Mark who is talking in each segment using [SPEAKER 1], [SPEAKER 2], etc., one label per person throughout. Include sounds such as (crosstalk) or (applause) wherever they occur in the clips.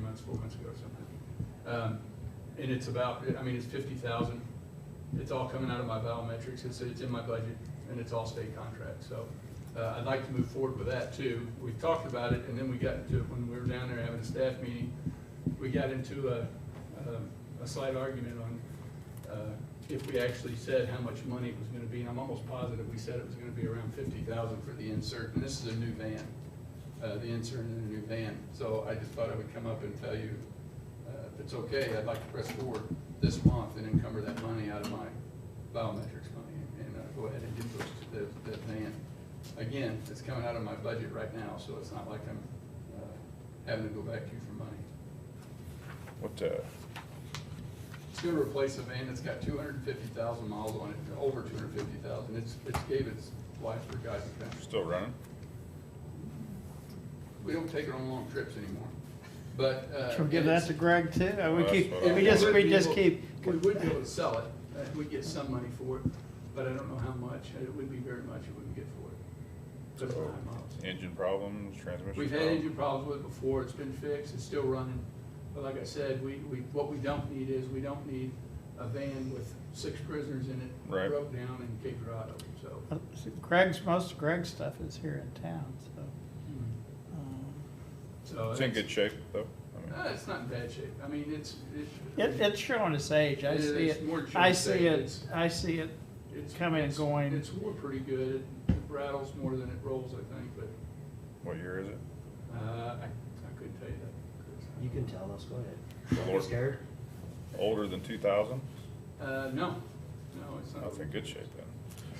[SPEAKER 1] months, four months ago or something. Um, And it's about, I mean, it's fifty thousand. It's all coming out of my biometrics. It's, it's in my budget and it's all state contract. So uh, I'd like to move forward with that too. We talked about it and then we got into it when we were down there having a staff meeting. We got into a, um, a- a slight argument on uh, if we actually said how much money it was gonna be. And I'm almost positive we said it was gonna be around fifty thousand for the insert. And this is a new van, uh, the insert in a new van. So I just thought I would come up and tell you, uh, if it's okay, I'd like to press forward this month and encumber that money out of my biometrics money and uh, go ahead and get those, that, that van. Again, it's coming out of my budget right now, so it's not like I'm uh, having to go back to you for money.
[SPEAKER 2] What, uh,
[SPEAKER 1] It's gonna replace a van that's got two hundred and fifty thousand miles on it, over two hundred and fifty thousand. It's, it's gave its life for guys and guys.
[SPEAKER 2] still running?
[SPEAKER 1] We don't take it on long trips anymore, but. uh,
[SPEAKER 3] Should we give that to Greg too? Uh, We
[SPEAKER 2] Well,
[SPEAKER 3] keep,
[SPEAKER 2] that's what I-
[SPEAKER 1] and
[SPEAKER 3] we just,
[SPEAKER 1] would
[SPEAKER 3] we
[SPEAKER 1] be
[SPEAKER 3] just
[SPEAKER 1] able-
[SPEAKER 3] keep.
[SPEAKER 1] We would be able to sell it. Uh, We'd get some money for it, but I don't know how much. and It wouldn't be very much it wouldn't get for it. Just
[SPEAKER 2] So,
[SPEAKER 1] nine miles.
[SPEAKER 2] Engine problems, transmission?
[SPEAKER 1] We've had
[SPEAKER 2] problems?
[SPEAKER 1] engine problems with it before, it's been fixed, it's still running, but like I said, we, we, what we don't need is, we don't need a van with six prisoners in it.
[SPEAKER 2] Right.
[SPEAKER 1] Broke down in Cape Dorado, so.
[SPEAKER 3] uh, Greg's, most of Greg's stuff is here in town, so. um,
[SPEAKER 1] So.
[SPEAKER 2] It's in
[SPEAKER 1] it's-
[SPEAKER 2] good shape, though. I mean,
[SPEAKER 1] Uh, it's not in bad shape, I mean, it's, it.
[SPEAKER 3] It, it's showing its age. I
[SPEAKER 1] It-
[SPEAKER 3] see
[SPEAKER 1] it's
[SPEAKER 3] it.
[SPEAKER 1] more showing
[SPEAKER 3] I
[SPEAKER 1] its
[SPEAKER 3] see
[SPEAKER 1] age.
[SPEAKER 3] it,
[SPEAKER 1] It's-
[SPEAKER 3] I see it.
[SPEAKER 1] it's-
[SPEAKER 3] coming and
[SPEAKER 1] it's-
[SPEAKER 3] going.
[SPEAKER 1] It's wore pretty good, it rattles more than it rolls, I think, but,
[SPEAKER 2] What year is it?
[SPEAKER 1] uh, I, I couldn't tell you that.
[SPEAKER 4] You can tell us, go
[SPEAKER 2] The
[SPEAKER 4] ahead. Don't be
[SPEAKER 2] Lord.
[SPEAKER 4] scared.
[SPEAKER 2] Older than two thousand?
[SPEAKER 1] Uh, no, no, it's not.
[SPEAKER 2] That's in good shape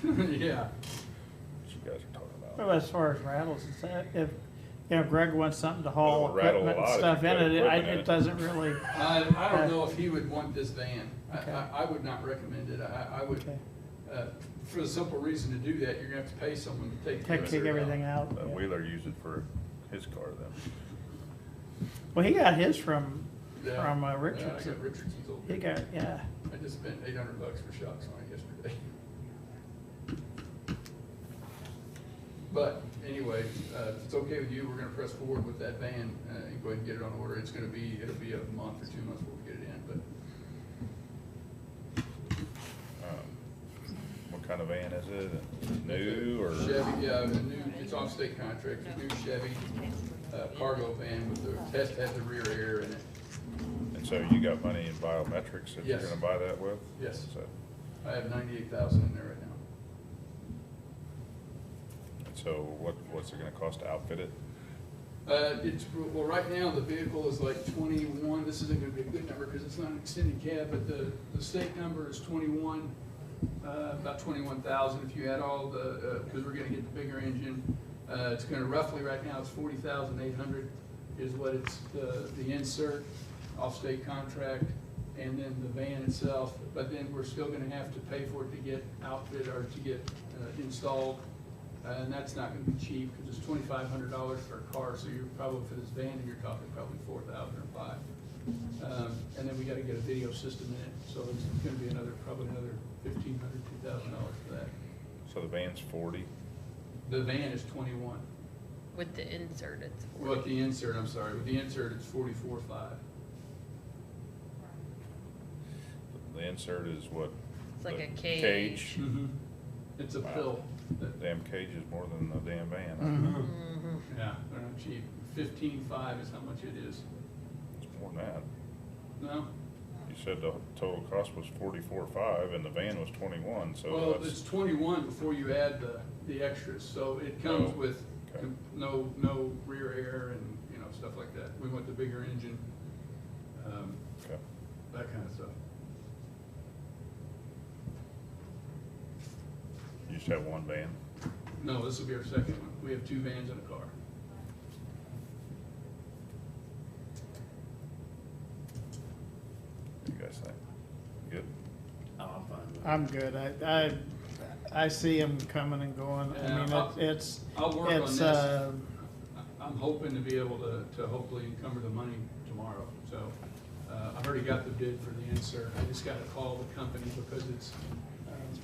[SPEAKER 2] then,
[SPEAKER 1] (laughs) Yeah,
[SPEAKER 2] what you guys are talking about.
[SPEAKER 3] Well, as far as rattles, it's, uh, if, you know, Greg wants something to haul
[SPEAKER 2] It'll rattle a
[SPEAKER 3] equipment and
[SPEAKER 2] lot if
[SPEAKER 3] stuff
[SPEAKER 2] you
[SPEAKER 3] in
[SPEAKER 2] put
[SPEAKER 3] it, it, I-
[SPEAKER 2] equipment in
[SPEAKER 3] it
[SPEAKER 2] it.
[SPEAKER 3] doesn't really,
[SPEAKER 1] (laughs) I, I don't know if he would want this van. I,
[SPEAKER 3] Okay.
[SPEAKER 1] I, I would not recommend it. I, I would,
[SPEAKER 3] Okay.
[SPEAKER 1] uh, for the simple reason to do that, you're gonna have to pay someone to take. the
[SPEAKER 3] take,
[SPEAKER 1] rest of
[SPEAKER 3] take
[SPEAKER 1] it out.
[SPEAKER 3] everything out.
[SPEAKER 2] Uh, Wheeler used it for his car then.
[SPEAKER 3] Well, he got his from,
[SPEAKER 1] Yeah.
[SPEAKER 3] from uh,
[SPEAKER 1] Yeah, I got
[SPEAKER 3] Richardson.
[SPEAKER 1] Richardson's old.
[SPEAKER 3] He got, yeah.
[SPEAKER 1] I just spent eight hundred bucks for shocks on it yesterday. But anyway, uh, if it's okay with you, we're gonna press forward with that van, uh, and go ahead and get it on order. It's gonna be, it'll be a month or two months before we get it in, but
[SPEAKER 2] Um, What kind of van is it? New or?
[SPEAKER 1] Chevy, yeah, the new, it's off state contract, the new Chevy, uh, cargo van with the test had the rear air in it.
[SPEAKER 2] And so you got money in biometrics that you're
[SPEAKER 1] Yes.
[SPEAKER 2] gonna buy that with?
[SPEAKER 1] Yes.
[SPEAKER 2] So,
[SPEAKER 1] I have ninety-eight thousand in there right now.
[SPEAKER 2] and so what, what's it gonna cost to outfit it?
[SPEAKER 1] Uh, it's, well, right now, the vehicle is like twenty-one, this isn't gonna be a good number, cause it's not an extended cab, but the, the state number is twenty-one, uh, about twenty-one thousand, if you add all the, uh, cause we're gonna get the bigger engine. Uh, it's gonna roughly, right now, it's forty thousand eight hundred is what it's, the, the insert, off-state contract, and then the van itself, but then we're still gonna have to pay for it to get outfitted or to get, uh, installed. Uh, And that's not gonna be cheap, because it's twenty-five hundred dollars for a car, so you're probably, for this van, you're talking probably four thousand or five. Um, And then we gotta get a video system in it, so it's gonna be another, probably another fifteen hundred, two thousand dollars for that.
[SPEAKER 2] So the van's forty,
[SPEAKER 1] The van is twenty-one,
[SPEAKER 5] With the insert, it's forty.
[SPEAKER 1] with the insert, I'm sorry, with the insert, it's forty-four five.
[SPEAKER 2] the insert is what?
[SPEAKER 5] It's like
[SPEAKER 2] the
[SPEAKER 5] a cage.
[SPEAKER 2] Cage,
[SPEAKER 1] It's a
[SPEAKER 2] Wow.
[SPEAKER 1] pill, that-
[SPEAKER 2] damn cage is more than the damn van,
[SPEAKER 1] Mhm. Yeah, they're not cheap, fifteen-five is how much it is,
[SPEAKER 2] it's more than that.
[SPEAKER 1] no?
[SPEAKER 2] You said the total cost was forty-four five and the van was twenty-one, so
[SPEAKER 1] Well, it's
[SPEAKER 2] Oh, that's,
[SPEAKER 1] twenty-one before you add the, the extras, so it comes
[SPEAKER 2] Oh,
[SPEAKER 1] with
[SPEAKER 2] okay.
[SPEAKER 1] com- no, no rear air and, you know, stuff like that. We want the bigger engine, um,
[SPEAKER 2] okay.
[SPEAKER 1] that kind of stuff.
[SPEAKER 2] You just have one van.
[SPEAKER 1] No, this will be our second one. We have two vans and a car.
[SPEAKER 2] What do you guys think? Good?
[SPEAKER 4] Oh, I'm fine with it.
[SPEAKER 3] I'm good. I, I, I see him coming and going.
[SPEAKER 1] Yeah,
[SPEAKER 3] I mean,
[SPEAKER 1] I'll-
[SPEAKER 3] it- it's,
[SPEAKER 1] I'll work on
[SPEAKER 3] it's,
[SPEAKER 1] this.
[SPEAKER 3] uh,
[SPEAKER 1] I- I'm hoping to be able to, to hopefully encumber the money tomorrow, so, uh, I've already got the bid for the insert, I just gotta call the company because it's, um,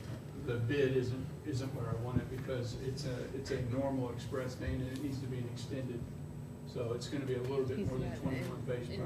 [SPEAKER 1] the bid isn't, isn't where I want it because it's a, it's a normal express vein and it needs to be an extended, so it's gonna be a little bit
[SPEAKER 5] He's
[SPEAKER 1] more than
[SPEAKER 5] got an
[SPEAKER 1] twenty-one base
[SPEAKER 5] in-
[SPEAKER 1] price.